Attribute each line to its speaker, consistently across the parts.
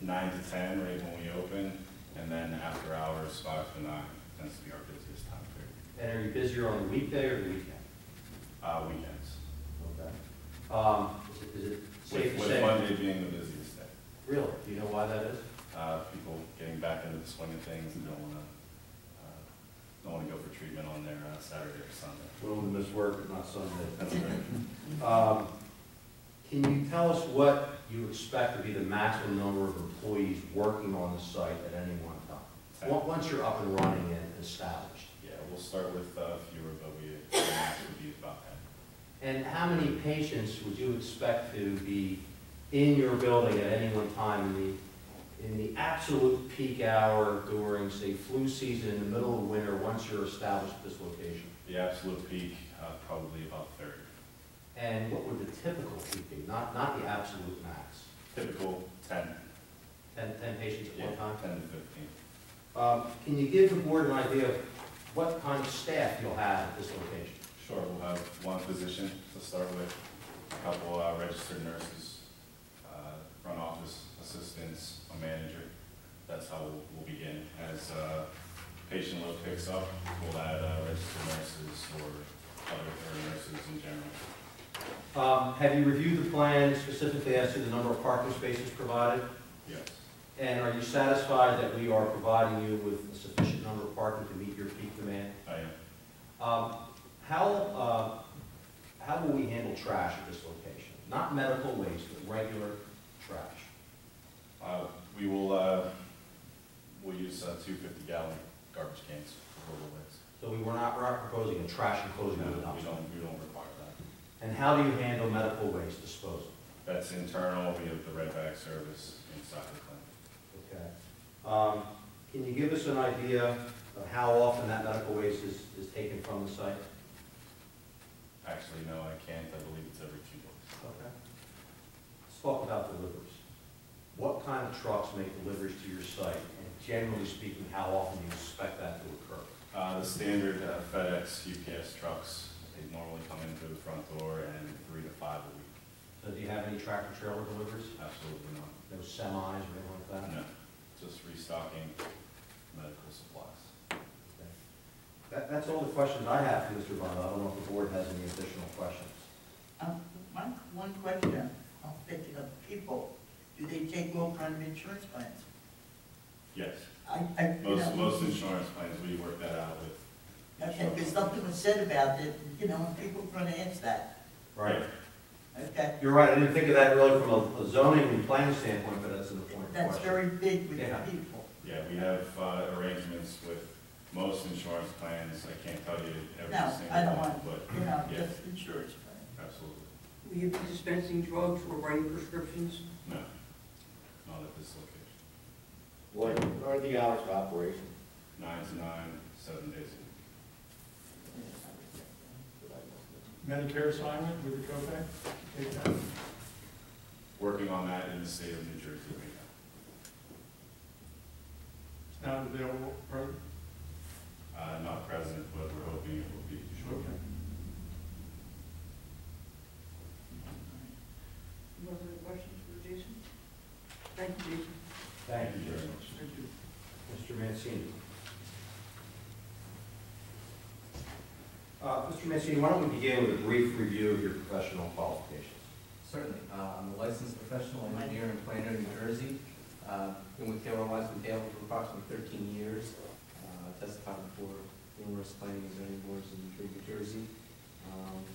Speaker 1: nine to ten, right when we open, and then after hours, five to nine, tends to be our busiest time period.
Speaker 2: And are you busier on the weekday or the weekend?
Speaker 1: Uh, weekends,
Speaker 2: Okay. Um, is it- is it safe
Speaker 1: with
Speaker 2: to
Speaker 1: with
Speaker 2: say?
Speaker 1: Monday being the busiest day.
Speaker 2: Really? Do you know why that is?
Speaker 1: Uh, people getting back into the swing of things and don't wanna, uh, don't wanna go for treatment on their uh, Saturday or Sunday.
Speaker 2: Willing to miss work, but not Sunday.
Speaker 1: That's right.
Speaker 2: Um, Can you tell us what you expect to be the maximum number of employees working on the site at any one time?
Speaker 1: Ten.
Speaker 2: Once- Once you're up and running and established?
Speaker 1: Yeah, we'll start with, uh, fewer, but we, the max would be about ten.
Speaker 2: And how many patients would you expect to be in your building at any one time in the, in the absolute peak hour during, say, flu season in the middle of winter, once you're established at this location?
Speaker 1: The absolute peak, uh, probably about thirty.
Speaker 2: And what would the typical peak be, not, not the absolute max?
Speaker 1: Typical ten.
Speaker 2: Ten, ten patients at
Speaker 1: Yeah,
Speaker 2: one time?
Speaker 1: Ten to fifteen.
Speaker 2: Um, Can you give the board an idea of what kind of staff you'll have at this location?
Speaker 1: Sure, we'll have one physician to start with, a couple uh, registered nurses, uh, front office assistants, a manager. That's how we'll- we'll begin. As uh, patient load picks up, we'll add uh, registered nurses or other or nurses in general.
Speaker 2: Um, Have you reviewed the plan specifically as to the number of parking spaces provided?
Speaker 1: Yes,
Speaker 2: And are you satisfied that we are providing you with a sufficient number of parking to meet your peak demand?
Speaker 1: I am.
Speaker 2: Um, How, uh, how will we handle trash at this location? Not medical waste, but regular trash.
Speaker 1: Uh, We will, uh, we'll use uh, two 50-gallon garbage cans for the lids.
Speaker 2: So we were not we're not proposing a trash enclosure with
Speaker 1: No,
Speaker 2: a
Speaker 1: We
Speaker 2: dumpster.
Speaker 1: don't, we don't require that.
Speaker 2: And how do you handle medical waste disposal?
Speaker 1: That's internal, we have the red bag service inside the clinic.
Speaker 2: Okay. Um, Can you give us an idea of how often that medical waste is, is taken from the site?
Speaker 1: Actually, no, I can't, I believe it's every two weeks.
Speaker 2: Okay. Let's talk about deliveries. What kind of trucks make deliveries to your site? And generally speaking, how often do you expect that to occur?
Speaker 1: Uh, the standard uh, FedEx, UPS trucks, they normally come in through the front door and three to five a week.
Speaker 2: So do you have any tractor trailer deliveries?
Speaker 1: Absolutely not.
Speaker 2: No semis or anything like that?
Speaker 1: No, just restocking medical supplies.
Speaker 2: Okay. That, that's all the questions I have for Mr. Bond. I don't know if the board has any additional questions.
Speaker 3: Um, One, one question, I'm thinking of people, do they take all kind of insurance plans?
Speaker 1: Yes,
Speaker 3: I, I, you
Speaker 1: most,
Speaker 3: know,
Speaker 1: most insurance plans, we work that out with.
Speaker 3: okay, because something was said about it, you know, and people are gonna ask that,
Speaker 2: Right.
Speaker 3: okay?
Speaker 2: You're right, I didn't think of that really from a- a zoning and planning standpoint, but that's an important
Speaker 3: That's
Speaker 2: question.
Speaker 3: very big with the
Speaker 2: Yeah.
Speaker 3: people.
Speaker 1: Yeah, we have, uh, arrangements with most insurance plans, I can't tell you every
Speaker 3: No, I
Speaker 1: single
Speaker 3: don't
Speaker 1: one,
Speaker 3: want,
Speaker 1: but,
Speaker 3: you know,
Speaker 1: yes,
Speaker 3: just insurance plan.
Speaker 1: absolutely.
Speaker 4: Will you be dispensing drugs or writing prescriptions?
Speaker 1: No, not at this location.
Speaker 5: What are the hours of operation?
Speaker 1: Nine to nine, seven days a week.
Speaker 6: Medicare assignment with the copay? Take that.
Speaker 1: working on that in the state of New Jersey right
Speaker 6: It's not available, right?
Speaker 1: now. Uh, not present, but we're hoping it will be shortly.
Speaker 6: Okay.
Speaker 4: No other questions for Jason? Thank you, Jason.
Speaker 2: Thank you,
Speaker 1: very
Speaker 2: Jason.
Speaker 1: much.
Speaker 4: Thank you.
Speaker 2: Mr. Mancini. Uh, Mr. Mancini, why don't we begin with a brief review of your professional qualifications?
Speaker 7: Certainly. Uh, I'm a licensed professional engineer and planner in New Jersey. Uh, Been with Taylor Wise and Taylor for approximately 13 years. Uh, Testified before numerous planning and zoning boards in New Jer- New Jersey. Um,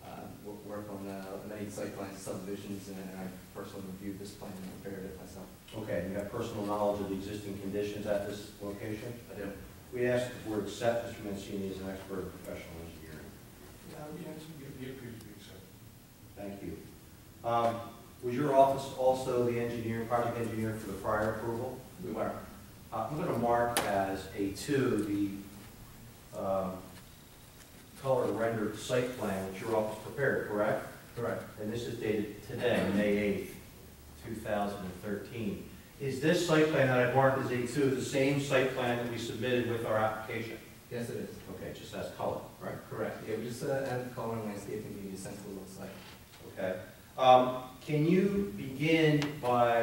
Speaker 7: uh, wo- Work on uh, many site plan subdivisions, and I personally reviewed this plan and prepared it myself.
Speaker 2: Okay, you have personal knowledge of the existing conditions at this location?
Speaker 7: I do.
Speaker 2: We ask that the board accept Mr. Mancini as an expert in professional engineering.
Speaker 6: Yeah, we actually get, get pretty big, so.
Speaker 2: Thank you. Um, Was your office also the engineer, project engineer for the prior approval?
Speaker 7: We were.
Speaker 2: Uh, I'm going to mark as A2 the um, color rendered site plan which your office prepared, correct?
Speaker 7: Correct.
Speaker 2: And this is dated today, May 8th, 2013. Is this site plan that I marked as A2 the same site plan that we submitted with our application?
Speaker 7: Yes, it is.
Speaker 2: Okay, just as color, right?
Speaker 7: Correct. Yeah, we just uh, added color and landscaping to the essential site.
Speaker 2: Okay. Um, Can you begin by